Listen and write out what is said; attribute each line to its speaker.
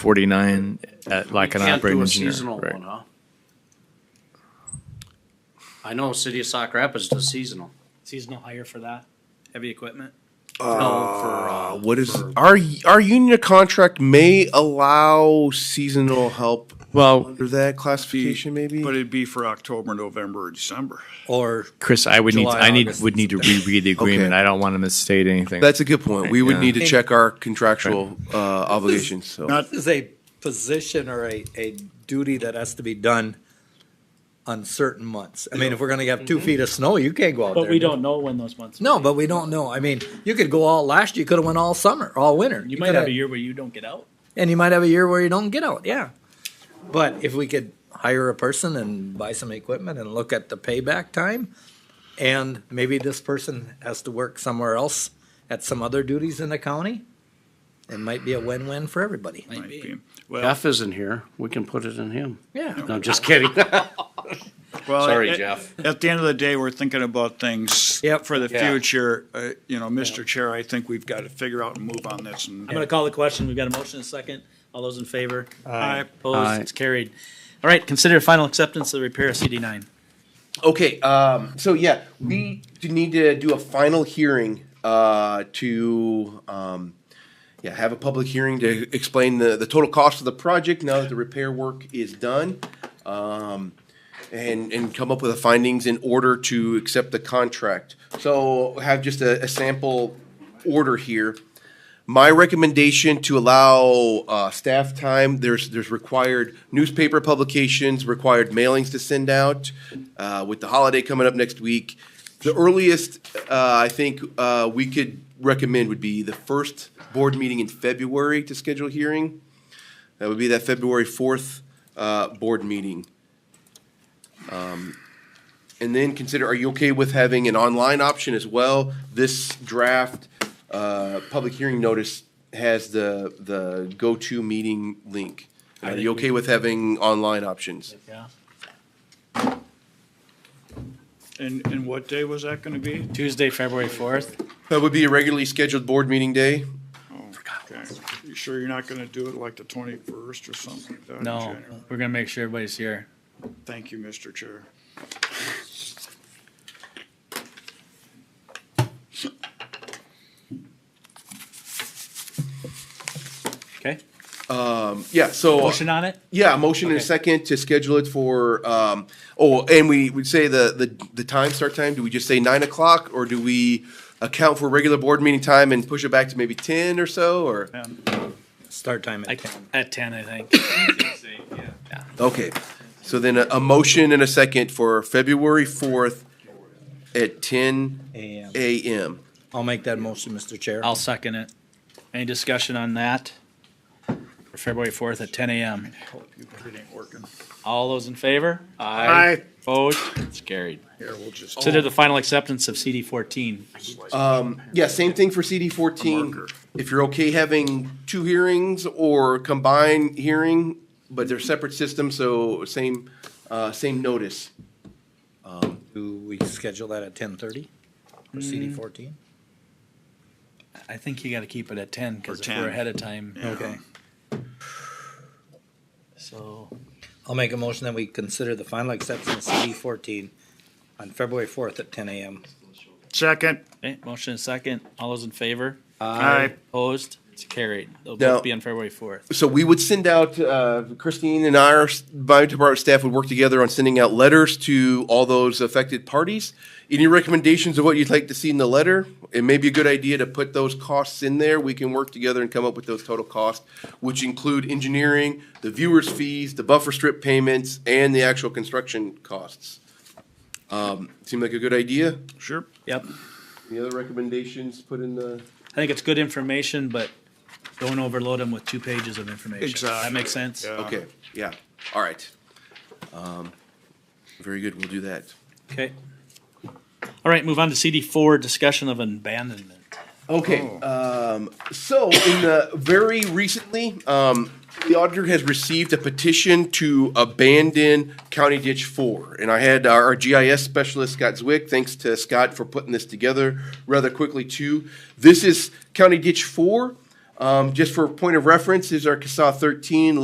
Speaker 1: 49 at like an
Speaker 2: Can't
Speaker 1: operating
Speaker 2: do a
Speaker 1: engineer.
Speaker 2: seasonal
Speaker 1: right.
Speaker 2: one, huh? I know City of Sauk Rapids does seasonal.
Speaker 3: Seasonal hire for that, heavy equipment.
Speaker 2: No, for, uh,
Speaker 4: What is
Speaker 2: for-
Speaker 4: our our union contract may allow seasonal help
Speaker 1: Well,
Speaker 4: under that classification? Maybe
Speaker 5: But it'd be for October, November, or December.
Speaker 3: Or
Speaker 1: Chris, I would need,
Speaker 3: July,
Speaker 1: I need,
Speaker 3: August,
Speaker 1: would need to reread the agreement.
Speaker 4: Okay.
Speaker 1: I don't want to misstate anything.
Speaker 4: that's a good point. We would
Speaker 1: Yeah.
Speaker 4: need to check our contractual uh, obligations. So
Speaker 5: Not
Speaker 6: This is a position or a, a duty that has to be done on certain months. I mean, if we're gonna have two feet of snow, you can't go out there.
Speaker 3: Mm-hmm. But we don't know when those months.
Speaker 6: No, but we don't know. I mean, you could go all last, year. you could have went all summer, all winter.
Speaker 3: You might
Speaker 6: could
Speaker 3: have a year where you don't get out.
Speaker 6: And you might have a year where you don't get out, yeah. But if we could hire a person and buy some equipment and look at the payback time, and maybe this person has to work somewhere else at some other duties in the county, it might be a win-win for everybody.
Speaker 5: might be. Well,
Speaker 2: Jeff isn't here. We can put it in him.
Speaker 6: Yeah.
Speaker 2: No, just kidding.
Speaker 5: well,
Speaker 2: Sorry,
Speaker 3: Oh,
Speaker 5: at-
Speaker 2: Jeff.
Speaker 5: At the end of the day, we're thinking about things
Speaker 6: Yep.
Speaker 5: for the
Speaker 2: Yeah.
Speaker 5: future. Uh, you know, Mr. Chair, I think we've got to figure out and move on this. And
Speaker 3: I'm gonna call the question. We've got a motion and a second. All those in favor?
Speaker 2: Aye.
Speaker 5: Aye.
Speaker 3: Opposed? It's carried. All right, consider final acceptance of the repair of CD nine.
Speaker 4: Okay, um, so yeah, we do need to do a final hearing uh, to um, yeah have a public hearing to explain the, the total cost of the project now that the repair work is done, um, and and come up with the findings in order to accept the contract. So have just a, a sample order here. My recommendation to allow uh, staff time, there's, there's required newspaper publications, required mailings to send out. uh, With the holiday coming up next week, the earliest uh, I think uh, we could recommend would be the first board meeting in February to schedule a hearing. That would be that February 4th uh, board meeting. Um, And then consider, are you okay with having an online option as well? This draft uh, public hearing notice has the, the go-to meeting link. Are you okay with having online options?
Speaker 3: Yeah.
Speaker 5: and, and what day was that going to be?
Speaker 3: Tuesday, February fourth.
Speaker 4: That would be a regularly scheduled board meeting day.
Speaker 5: Oh, Okay. You sure you're not going to do it like the 21st or something like that? in
Speaker 3: No,
Speaker 5: January?
Speaker 3: we're gonna make sure everybody's here.
Speaker 5: Thank you, Mr. Chair.
Speaker 3: Okay.
Speaker 4: Yeah, so,
Speaker 3: Motion on it?
Speaker 4: yeah, a motion and a
Speaker 3: Okay.
Speaker 4: second to schedule it for, um, oh, and we would say the, the, the time, start time, do we just say nine o'clock? Or do we account for regular board meeting time and push it back to maybe ten or so, or?
Speaker 5: And
Speaker 6: Start time
Speaker 3: I
Speaker 6: at ten.
Speaker 3: at ten, I think.
Speaker 4: Okay, so then a, a motion and a second for February fourth at ten
Speaker 6: AM.
Speaker 4: AM.
Speaker 6: I'll make that motion, Mr. Chair.
Speaker 3: I'll second it. Any discussion on that? For February fourth at ten AM.
Speaker 5: hope you- it ain't working.
Speaker 3: All those in favor?
Speaker 5: Aye.
Speaker 3: Opposed? It's carried.
Speaker 5: Here, we'll just.
Speaker 3: Consider the final acceptance of CD fourteen.
Speaker 4: Um, yeah, same thing for CD fourteen.
Speaker 5: Marker.
Speaker 4: If you're okay having two hearings or combined hearing, but they're separate systems, so same, uh, same notice.
Speaker 6: Do we schedule that at ten thirty for CD fourteen?
Speaker 3: I think you gotta keep it at ten, because
Speaker 5: For
Speaker 3: if
Speaker 5: 10.
Speaker 3: we're ahead of time.
Speaker 5: Yeah.
Speaker 6: Okay.
Speaker 3: So,
Speaker 6: I'll make a motion that we consider the final acceptance of CD fourteen on February fourth at ten AM.
Speaker 5: Second.
Speaker 3: okay, motion and second. All those in favor?
Speaker 5: Aye.
Speaker 3: Opposed? It's carried. They'll
Speaker 4: Now-
Speaker 3: both be on February fourth.
Speaker 4: So we would send out, uh, Christine and our, s- my department staff would work together on sending out letters to all those affected parties. Any recommendations of what you'd like to see in the letter? It may be a good idea to put those costs in there. We can work together and come up with those total costs, which include engineering, the viewer's fees, the buffer strip payments, and the actual construction costs. Um, seem like a good idea?
Speaker 5: Sure.
Speaker 3: Yep.
Speaker 4: Any other recommendations put in the?
Speaker 3: I think it's good information, but don't overload them with two pages of information. That
Speaker 5: Exactly.
Speaker 3: makes sense?
Speaker 5: Yeah.
Speaker 4: Okay, yeah, all right. Um, Very good, we'll do that.
Speaker 3: Okay. All right, move on to CD four, discussion of abandonment.
Speaker 4: Okay, um, so in the very recently, um, the auditor has received a petition to abandon County Ditch Four. And I had our our GIS specialist, Scott Zwick, thanks to Scott for putting this together rather quickly too. This is County Ditch Four. Um, Um, just for point of reference, is our CASA thirteen